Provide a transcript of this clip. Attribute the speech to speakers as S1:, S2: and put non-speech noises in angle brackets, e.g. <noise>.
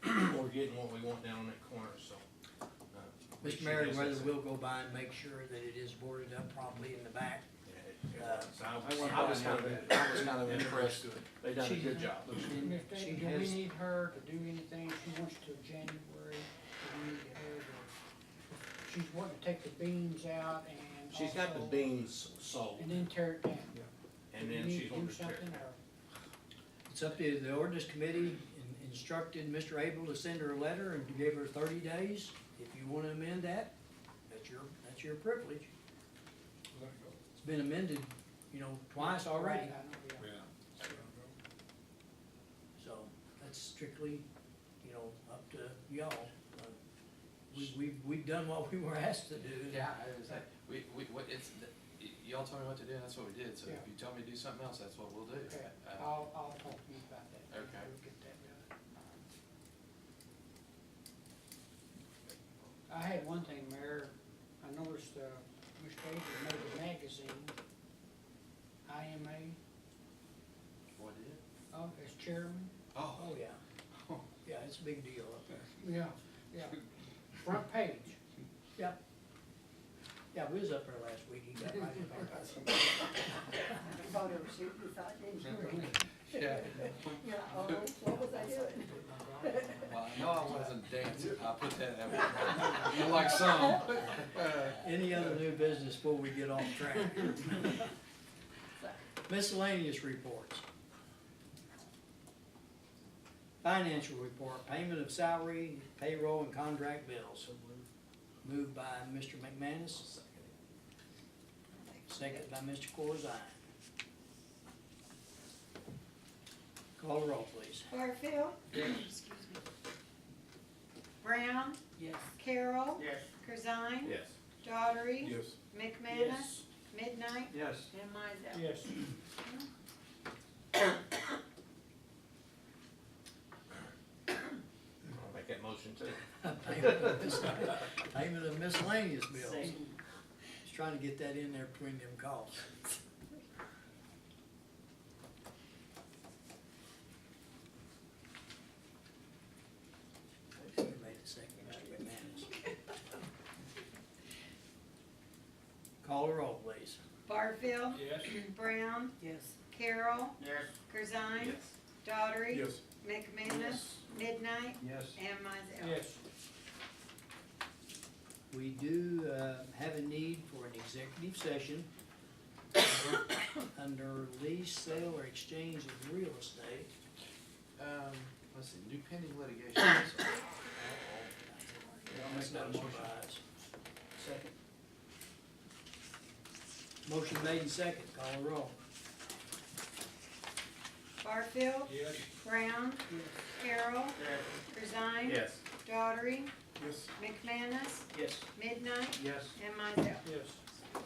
S1: getting what we want down in that corner, so. uh, we
S2: Mr.
S1: should
S2: Mayor,
S1: guess
S2: whether
S1: that's it.
S2: we'll go by and make sure that it is boarded up properly in the back.
S1: Yeah, it- it
S2: uh,
S1: was. I
S3: I
S1: was,
S3: went
S1: I was
S3: by
S1: kind
S3: and
S1: of,
S3: looked at it.
S1: I was kind of impressed. They done a good job.
S2: And
S3: If they-
S2: she
S3: Do we
S2: has,
S3: need her to do anything? She wants to January, do we need her to, she's wanting to take the beams out and also.
S1: She's got the beams sold
S3: And then tear it down.
S1: and
S3: Do we
S1: then
S3: need
S1: she's
S3: to
S1: going
S3: do
S1: to tear it.
S3: something,
S1: down.
S3: or-
S2: it's up to the ordinance committee in- instructed Mr. Abel to send her a letter and give her thirty days. If you wanna amend that, that's your, that's your privilege. It's been amended, you know, twice already,
S3: Right, I know, yeah.
S2: so that's strictly, you know, up to y'all. Uh, We, we, we've done what we were asked to do.
S4: Yeah, I was like, we, we, what, it's, y- y'all told me what to do, and that's what we did, so if
S3: Yeah.
S4: you tell me to do something else, that's what we'll do.
S3: Okay,
S4: Uh,
S3: I'll, I'll talk to you about that.
S4: Okay.
S3: We'll get that done. I had one thing, Mayor, I noticed, uh, Mr. Avery made a magazine, IMA,
S4: What did?
S3: oh, as chairman.
S4: Oh, <laughs>
S2: Oh, yeah. Yeah, it's a big deal up there.
S3: Yeah, yeah, front page.
S2: Yeah, we was up there last week, he got right in there.
S5: photo shoot, you thought, didn't you?
S4: yeah,
S5: You're like, oh, what was I doing?
S4: well, I know I wasn't dancing, I'll put that
S3: <laughs>
S4: out. You like some, uh,
S2: Any other new business before we get off track? Miscellaneous reports. Financial report, payment of salary, payroll, and contract bills. Moved by Mr. McManus. Second by Mr. Corzine. Call the roll, please. <laughs>
S5: Barfield. Brown.
S3: Yes.
S5: Carroll.
S3: Yes.
S5: Corzine.
S1: Yes.
S5: Daughtery.
S1: Yes.
S5: McManus. Midnight.
S3: Yes.
S5: And Mizel.
S3: Yes.
S1: I'll make that motion too.
S2: Payment of mis- Payment of miscellaneous bills. Just trying to get that in there between them calls. Who made the second, Mr. McManus? Call the roll, please.
S5: Barfield. Brown.
S3: Yes.
S5: Carroll.
S3: Yes.
S5: Corzine.
S1: Yes.
S5: Daughtery.
S1: Yes.
S5: McManus. Midnight.
S3: Yes.
S5: And Mizel.
S3: Yes.
S2: We do uh, have a need for an executive session under lease, sale, or exchange of real estate.
S4: um, let's see, new pending litigation. so-
S2: I'll make that motion. Second. Motion made and second, call the roll.
S5: Barfield.
S3: Yes.
S5: Brown. Carroll.
S2: Uh,
S5: Corzine.
S1: Yes.
S5: Daughtery.
S3: Yes.
S5: McManus.
S2: Yes.
S5: Midnight.
S3: Yes.
S5: And Mizel.
S3: Yes.